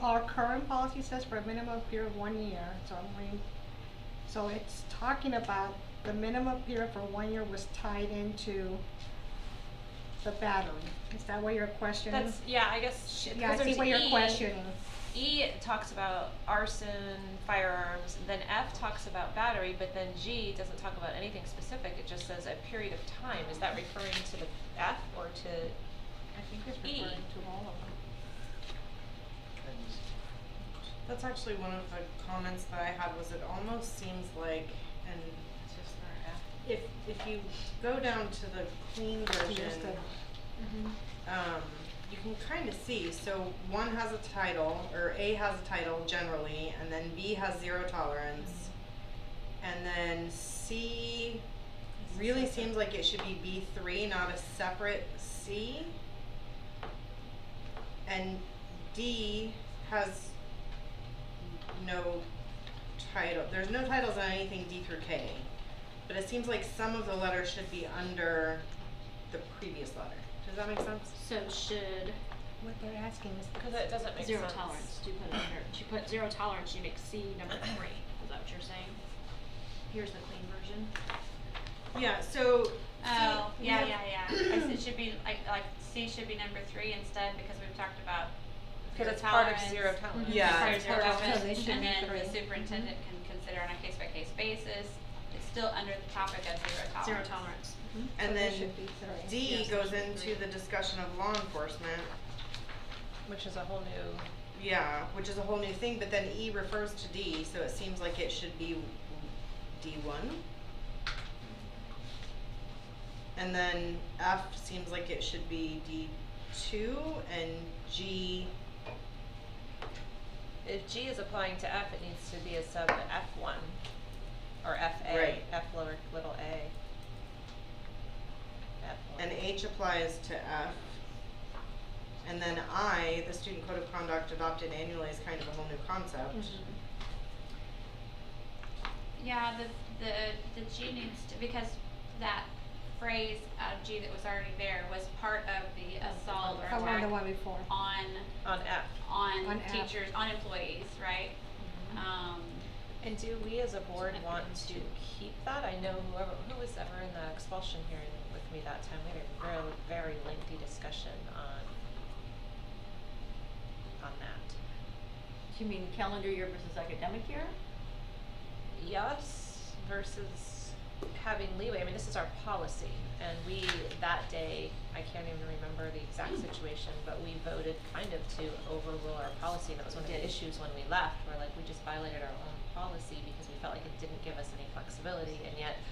Our current policy says for a minimum period of one year, so I'm reading, so it's talking about the minimum period for one year was tied into the battery. Is that what you're questioning? That's yeah. I guess it Yeah, I goes see into what you're E. questioning. E talks about arson, firearms. Then F talks about battery, but then G doesn't talk about anything specific. It just says a period of time. Is that referring to the F or to? I think it's E. referring to all of them. That's actually one of the comments that I had was it almost seems like, and it's just not F. If, if you go down to the clean version, Understood. Mm-hmm. um, you can kind of see, so one has a title, or A has a title generally, and then B has zero tolerance. And then C really seems like it should be B three, not a separate C. And D has no title, there's no titles on anything D through K. But it seems like some of the letters should be under the previous letter. Does that make sense? So should What they're asking is. Because it doesn't make zero sense. tolerance, do you put it under, do you put zero tolerance, you'd exceed number three, is that what you're saying? Here's the clean version. Yeah, so. Oh, see, yeah, we yeah, have- yeah. I s- It should be, like, like C should be number three instead because we've talked about Because zero it's part tolerance. of zero tolerance. Yeah. It's part it's of part zero of- tolerance, so they should and be then the three. superintendent can consider on a case-by-case basis. It's still under the topic of zero tolerance. Zero tolerance. So And there then should be three. D Yes, there goes should be into three. the discussion of law enforcement, Which is a whole new. yeah, which is a whole new thing, but then E refers to D, so it seems like it should be D one. And then F seems like it should be D two and G, If G is applying to F, it needs to be a sub F one, or F A, Right. F lower little a. F one. and H applies to F. And then I, the student code of conduct adopted annually is kind of a whole new concept. Mm-hmm. Yeah, the, the, the G needs to, because that phrase, uh, G that was already there was part of the assault or From one attack the one before. on, On F. On on F. teachers, on employees, right? Um, And do we as a board F want one, to two. keep that? I know whoever, who was ever in that expulsion hearing with me that time, we had a very, very lengthy discussion on, on that. Do you mean calendar year versus academic year? Yes versus having leeway, I mean, this is our policy, and we, that day, I can't even remember the exact situation, but we voted kind of to overrule our policy, and that was one of the Did. issues when we left, where like, we just violated our own policy because we felt like it didn't give us any flexibility, and yet,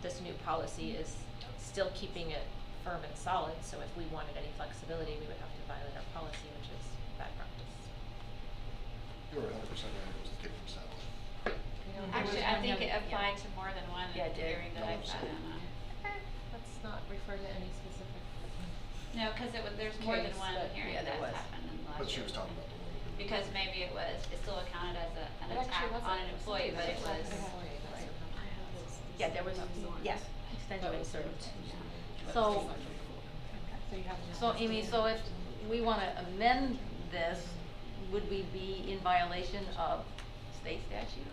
this new policy is still keeping it firm and solid, so if we wanted any flexibility, we would have to violate our policy, which is bad practice. You were hundred percent right, it was the kid from Satellite. You know, Actually, I think it Yeah. applied to more than one Mm-hmm. Yeah, it did. hearing that No, I I'm sat sorry. in on. Let's not refer to any specific. No, cause it was, there's more than Case, one but- hearing yeah, there that's was. happened in the last But she year. was talking about the one. that we were- Because maybe it was, it still accounted as a, an It actually attack wasn't. on an employee, but it was, Yeah, there was, yeah, extension But we of served. service. Yeah. So, So you have. so Amy, so if we wanna amend this, would we be in violation of state statute?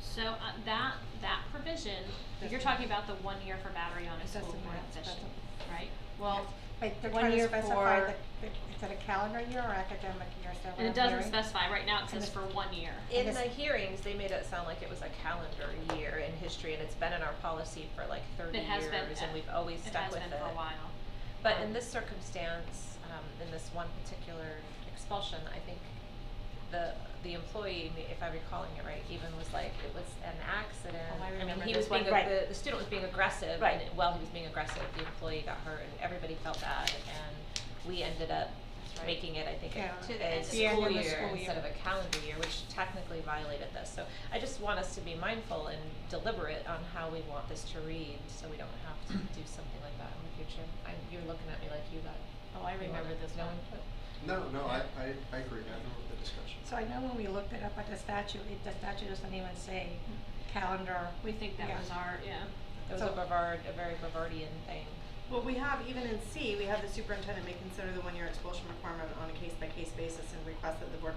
So, uh, that, that provision, you're talking about the one year for battery on a That's school a board math- that's official, a- right? Well, But they're one trying to year specify for- the, the, is it a calendar year or academic year, is that what And I'm it doesn't hearing? specify, right now it And says it- for one year. In Yes. the hearings, they made it sound like it was a calendar year in history, and it's been in our policy for like thirty It has years, been, and we've always it stuck has with it. been for a while. But in Um, this circumstance, um, in this one particular expulsion, I think the, the employee, ma- if I'm recalling it right, even was like, it was an accident. Oh, I mean, remember he was this being, one, right. ag- the, the student was being aggressive, and Right. it- while he was being aggressive, the employee got hurt, and everybody felt bad, and we ended up That's right. making it, I think, Yeah. a, To the a end of the end school of the year school instead year. of a calendar year, which technically violated this. So I just want us to be mindful and deliberate on how we want this to read, so we don't have to do something like that in the future. I, you're looking at me like you got. oh, I you remember wanted this no one. input. No, no, I, I, I agree, I remember the discussion. So I know when we looked it up at the statute, it, the statute doesn't even say calendar. We think that Yeah. was our, yeah. It Mm. was So- a Brevard, a very Brevardian thing. Well, we have, even in C, we have the superintendent may consider the one-year expulsion requirement on a case-by-case basis and request that the board